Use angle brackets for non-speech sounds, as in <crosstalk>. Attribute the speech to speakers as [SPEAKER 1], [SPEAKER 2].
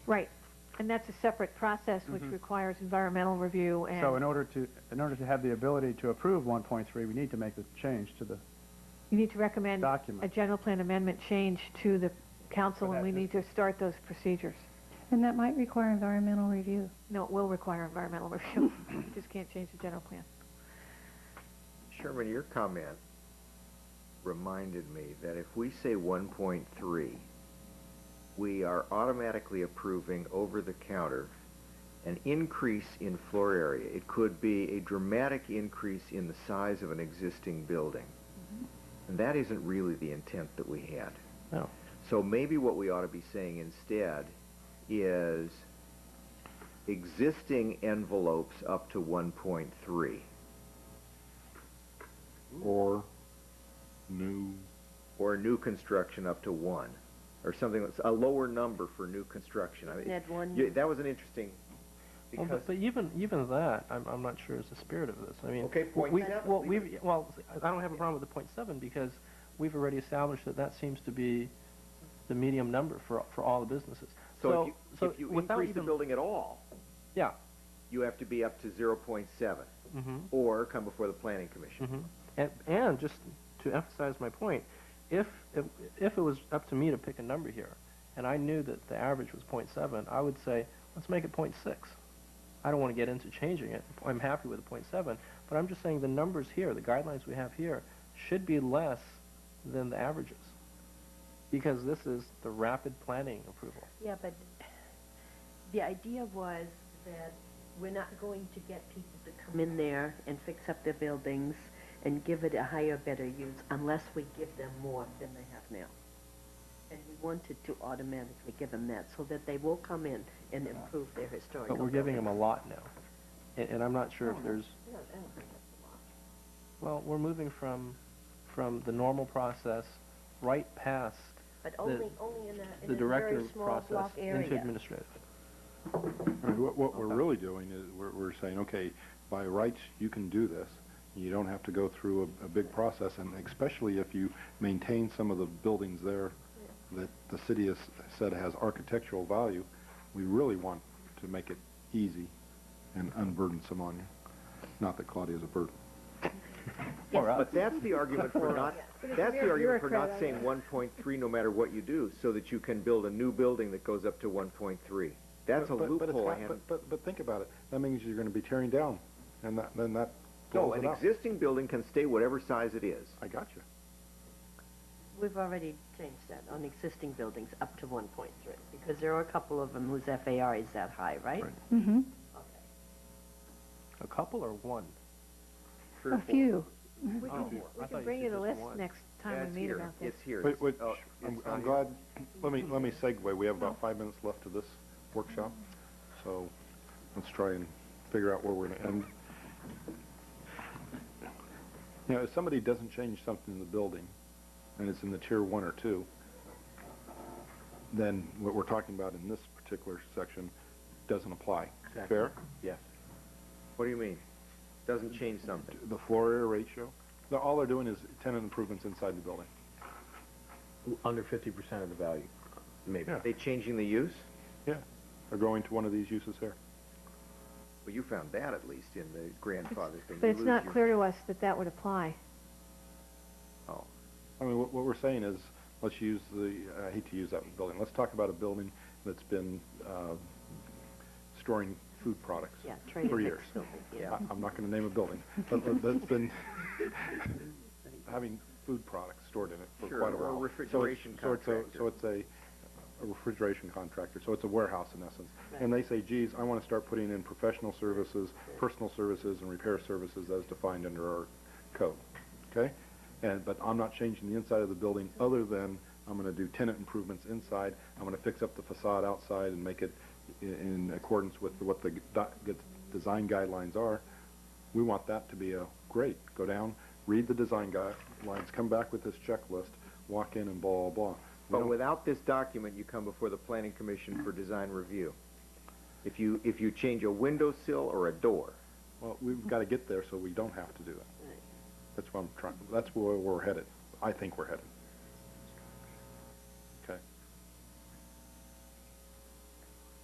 [SPEAKER 1] Right, and that's a separate process which
[SPEAKER 2] Mm-hmm.
[SPEAKER 1] requires environmental review and...
[SPEAKER 3] So in order to, in order to have the ability to approve 1.3, we need to make the change to the,
[SPEAKER 1] You need to recommend
[SPEAKER 3] Document.
[SPEAKER 1] a general plan amendment change to the council,
[SPEAKER 3] But
[SPEAKER 1] and we
[SPEAKER 3] that-
[SPEAKER 1] need to start those procedures.
[SPEAKER 4] And that might require environmental review.
[SPEAKER 1] No, it will require environmental <laughs> review. You just can't change the general plan.
[SPEAKER 5] Sherman, your comment reminded me that if we say one point three, we are automatically approving over-the-counter an increase in floor area. It could be a dramatic increase in the size of an existing building. And that isn't really the intent that we had.
[SPEAKER 2] No.
[SPEAKER 5] So maybe what we ought to be saying instead is existing envelopes up to one point three.
[SPEAKER 6] Or new,
[SPEAKER 5] or new construction up to one, or something that's a lower number for new construction. I mean,
[SPEAKER 7] Ned, one.
[SPEAKER 5] yeah, that was an interesting
[SPEAKER 2] Well,
[SPEAKER 5] because
[SPEAKER 2] but, but even even that, I'm, I'm not sure is the spirit of this. I mean,
[SPEAKER 5] Okay, point
[SPEAKER 2] we,
[SPEAKER 5] seven.
[SPEAKER 2] well, we've well, I don't have a problem with the point seven because we've already established that that seems to be the medium number for for all the businesses.
[SPEAKER 5] so,
[SPEAKER 2] so,
[SPEAKER 5] if you,
[SPEAKER 2] so
[SPEAKER 5] if you
[SPEAKER 2] without
[SPEAKER 5] increase
[SPEAKER 2] even
[SPEAKER 5] the building at all,
[SPEAKER 2] yeah,
[SPEAKER 5] you have to be up to zero point seven,
[SPEAKER 2] mm-hmm.
[SPEAKER 5] or come before the planning commission.
[SPEAKER 6] Mm-hmm.
[SPEAKER 2] hmm And, and just to emphasize my point, if, if if it was up to me to pick a number here, and I knew that the average was 0.7, I would say let's make it 0.6. I don't want to get into changing it. I'm happy with the 0.7, but I'm just saying the numbers here, the guidelines we have here, should be less than the averages, because this is the rapid planning approval.
[SPEAKER 7] Yeah, but the idea was that we're not going to get people to come in there and fix up their buildings and give it a higher, better use unless we give them more than they have now. And we wanted to automatically give them that so that they will come in and improve their historical.
[SPEAKER 2] But we're giving them
[SPEAKER 7] buildings.
[SPEAKER 2] a lot now, and, and I'm not sure if there's
[SPEAKER 7] No, I don't think that's a lot.
[SPEAKER 2] Well, we're moving from, from the normal process right past
[SPEAKER 7] But only, only in Uh, a,
[SPEAKER 2] the
[SPEAKER 7] in a
[SPEAKER 2] director
[SPEAKER 7] very small
[SPEAKER 2] process
[SPEAKER 7] block area.
[SPEAKER 2] into administrative.
[SPEAKER 6] I mean, what, what we're really doing is, we're, we're saying, okay, by rights, you can do this. You don't have to go through a, a big process, and especially if you maintain some of the buildings there that the city has said has architectural value, we really want to make it easy and unburdensome on you. Not that Claudia's a burden.
[SPEAKER 2] Or us.
[SPEAKER 5] But that's the argument
[SPEAKER 4] <laughs>
[SPEAKER 5] for not. That's the argument for not saying one point three, no matter what you do, so that you can build a new building that goes up to one point three. That's
[SPEAKER 6] But-
[SPEAKER 5] a
[SPEAKER 6] but- but it's
[SPEAKER 5] loophole. I
[SPEAKER 6] not-
[SPEAKER 5] hadn't.
[SPEAKER 6] But, but, but think about it. That means you're gonna be tearing down, and that, then that
[SPEAKER 5] No,
[SPEAKER 6] blows
[SPEAKER 5] an
[SPEAKER 6] it up.
[SPEAKER 5] existing building can stay whatever size it is.
[SPEAKER 6] I got you.
[SPEAKER 7] We've already changed that on existing buildings up to one point three, because there are a couple of them whose FAR is that high, right?
[SPEAKER 6] Right.
[SPEAKER 4] Mm-hmm.
[SPEAKER 2] A couple or one?
[SPEAKER 5] Three or
[SPEAKER 4] A
[SPEAKER 5] four.
[SPEAKER 4] few.
[SPEAKER 1] We
[SPEAKER 2] Oh,
[SPEAKER 1] can,
[SPEAKER 2] I
[SPEAKER 1] we
[SPEAKER 2] thought
[SPEAKER 1] can
[SPEAKER 2] you
[SPEAKER 1] bring
[SPEAKER 2] said
[SPEAKER 1] you the
[SPEAKER 2] just
[SPEAKER 1] list
[SPEAKER 2] one.
[SPEAKER 1] next
[SPEAKER 5] Yeah,
[SPEAKER 1] time
[SPEAKER 5] it's
[SPEAKER 1] we meet
[SPEAKER 5] here.
[SPEAKER 1] about this.
[SPEAKER 5] It's here.
[SPEAKER 6] Wait, wait,
[SPEAKER 5] Oh,
[SPEAKER 6] sh-
[SPEAKER 5] it's
[SPEAKER 6] I'm,
[SPEAKER 5] not
[SPEAKER 6] I'm
[SPEAKER 5] here.
[SPEAKER 6] glad, let me, let me segue. We have about five minutes left to this workshop, so let's try and figure out where we're gonna end. You know, if somebody doesn't change something in the building, and it's in the tier one or two, then what we're talking about in this particular section doesn't apply. Fair?
[SPEAKER 5] Yes. What do you mean? Doesn't change something.
[SPEAKER 6] The floor area ratio, they're- all they're doing is tenant improvements inside the building.
[SPEAKER 8] Under fifty percent of the value, maybe.
[SPEAKER 6] Yeah.
[SPEAKER 5] They changing the use?
[SPEAKER 6] Yeah. They're going to one of these uses here.
[SPEAKER 5] Well, you found that at least in the grandfather thing.
[SPEAKER 1] But
[SPEAKER 5] You
[SPEAKER 1] it's
[SPEAKER 5] lose
[SPEAKER 1] not
[SPEAKER 5] your-
[SPEAKER 1] clear to us that that would apply.
[SPEAKER 5] Oh.
[SPEAKER 6] I mean, what, what we're saying is, let's use the, I hate to use that building, let's talk about a building that's been, uh, storing food products.
[SPEAKER 7] Yeah, trade
[SPEAKER 6] For
[SPEAKER 7] and
[SPEAKER 6] years.
[SPEAKER 7] mix building, yeah.
[SPEAKER 6] I- I'm not gonna name a building, but but that's been
[SPEAKER 7] <laughs>
[SPEAKER 6] having food products stored in it for
[SPEAKER 5] Sure,
[SPEAKER 6] quite a
[SPEAKER 5] or a
[SPEAKER 6] while.
[SPEAKER 5] refrigeration
[SPEAKER 6] so it's, so it's
[SPEAKER 5] contractor.
[SPEAKER 6] a- So it's a, a refrigeration contractor, so it's a warehouse in essence. And they say, geez, I wanna start putting in professional services, personal services, and repair services as defined under our code, okay? And, but I'm not changing the inside of the building, other than I'm gonna do tenant improvements inside, I'm gonna fix up the facade outside and make it i- in accordance with what the g- doc- good design guidelines are. We want that to be a, great, go down, read the design guidelines, come back with this checklist, walk in and blah, blah, blah. We
[SPEAKER 5] But
[SPEAKER 6] don't-
[SPEAKER 5] without this document, you come before the planning commission for design review. If you, if you change a windowsill or a door,
[SPEAKER 6] Well, we've gotta get there so we don't have to do that. That's what I'm trying, that's where we're headed. I think we're headed.